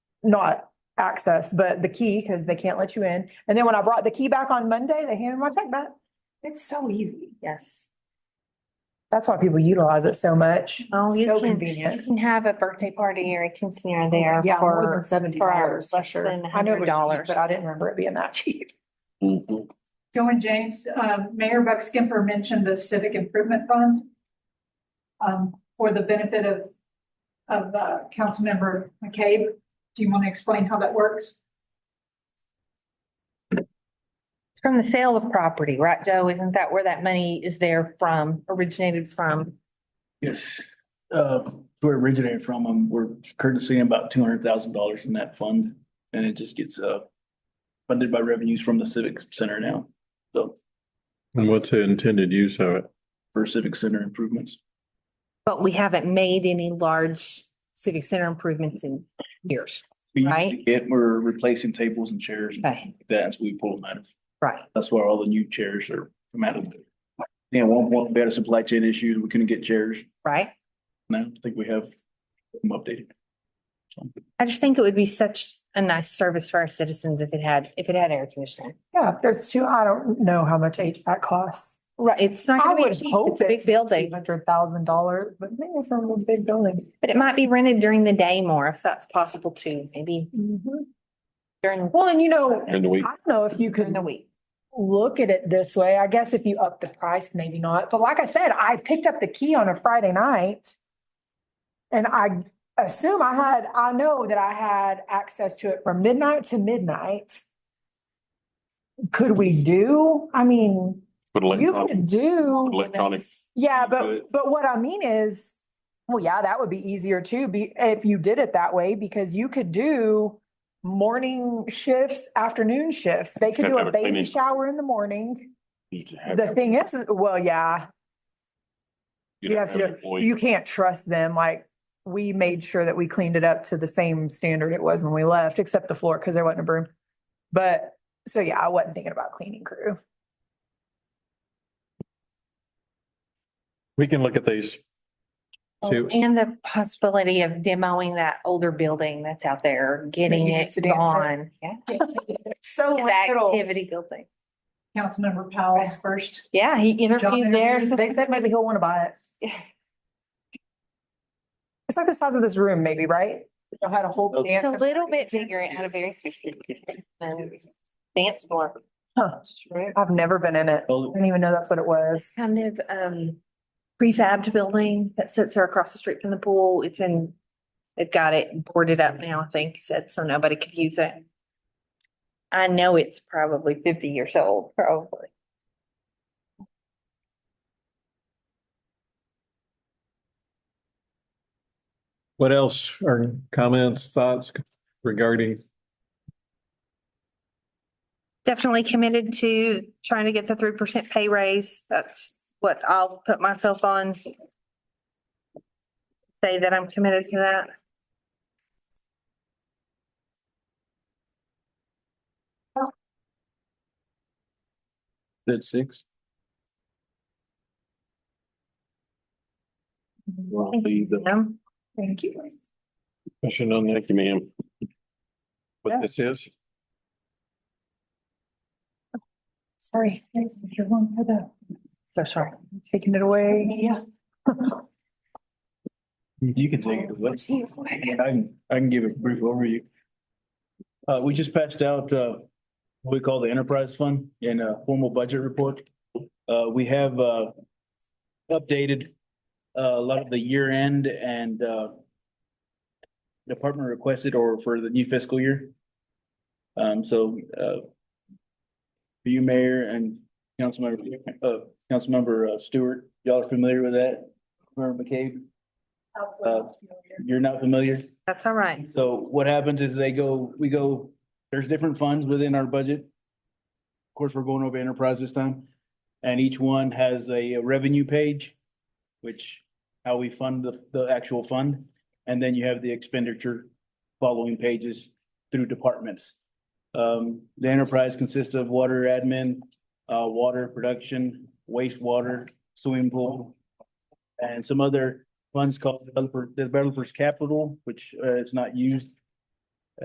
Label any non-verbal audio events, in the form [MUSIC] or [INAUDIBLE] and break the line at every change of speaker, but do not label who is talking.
not access, but the key, because they can't let you in. And then when I brought the key back on Monday, they handed my check back. It's so easy.
Yes.
That's why people utilize it so much.
Oh, you
So
can-
convenient.
You can have a birthday party or a quinceanera there
Yeah, more than
for,
seventy
for
dollars,
ours,
for
less
sure.
than
I know it was cheap,
$100.
But I didn't remember it being that cheap. [LAUGHS]
Mm-hmm.
Joe and James, um, Mayor Buck Skimper mentioned the Civic Improvement Fund um, for the benefit of, of, uh, Councilmember McCabe. Do you want to explain how that works?
from the sale of property, right, Joe? Isn't that where that money is there from, originated from?
Yes, uh, where it originated from, um, we're currently seeing about two hundred thousand dollars in that fund, and it just gets, uh, funded by revenues from the civic center now, so,
And what's the intended use of it?
for civic center improvements.
But we haven't made any large civic center improvements in years.
We usually
Right.
get- we're replacing tables and chairs, and
Okay,
that's what we pull them out of,
right.
that's why all the new chairs are come out of. Yeah, at one point, we had a supply chain issue, we couldn't get chairs,
Right?
now I think we have them updated.
I just think it would be such a nice service for our citizens if it had, if it had air conditioning.
Yeah, there's two, I don't know how much HVAC costs.
Right, it's not
I
gonna be
would
cheap.
hope
It's a big building,
Hundred thousand dollars, but maybe from a big building.
but it might be rented during the day more if that's possible too, maybe during,
Well, and you know, I
And we,
don't know if you
during
could
the week.
look at it this way. I guess if you up the price, maybe not. But like I said, I picked up the key on a Friday night. And I assume I had, I know that I had access to it from midnight to midnight. Could we do, I mean,
but
you
electronic,
could do,
electronic,
yeah,
But-
but, but what I mean is, well, yeah, that would be easier too, be, if you did it that way, because you could do morning shifts, afternoon shifts. They could
Have
do
to
a
have a
baby
cleaning.
shower in the morning.
you could have-
The thing is, well, yeah,
you'd
you have to,
an
do
employee.
you can't trust them. Like, we made sure that we cleaned it up to the same standard it was when we left, except the floor, because there wasn't a broom. But, so yeah, I wasn't thinking about cleaning crew.
We can look at these. See,
Oh, And the possibility of demoing that older building that's out there, getting
That
it
used to be-
gone. Yeah.
So
That
little.
activity building.
Councilmember Powell's first.
Yeah, he
Job
interviewed there.
interviews,
They said maybe he'll want to buy it. It's like the size of this room maybe, right? I had a whole
It's
dance.
a little bit bigger and had a very specific dance floor.
Huh. I've never been in it. I
Well,
didn't even know that's what it was.
It's kind of um prefabbed building that sits there across the street from the pool. It's in, they've got it boarded up now, I think, he said, so nobody could use it. I know it's probably fifty years old, probably.
What else are comments, thoughts regarding?
Definitely committed to trying to get the three percent pay raise. That's what I'll put myself on. Say that I'm committed to that.
That's six. Roughly the-
Um,
Thank you.
Question on that, ma'am.
Yeah.
What this is?
Sorry. You're one for the
So sorry.
Taking it away.
media.
You can take it. Let's- I can, I can give a brief overview. Uh, we just patched out, uh, what we call the enterprise fund in a formal budget report. Uh, we have, uh, updated, uh, a lot of the year end and, uh, department requested or for the new fiscal year. Um, so, uh, for you, Mayor and Councilmember, uh, Councilmember uh, Stewart, y'all are familiar with that? Member McCabe? You're not familiar?
That's all right.
So what happens is they go, we go, there's different funds within our budget. Of course, we're going over enterprise this time. And each one has a revenue page, which how we fund the, the actual fund. And then you have the expenditure following pages through departments. Um, the enterprise consists of water admin, uh, water production, wastewater, swimming pool. And some other funds called developer, developers capital, which, uh, is not used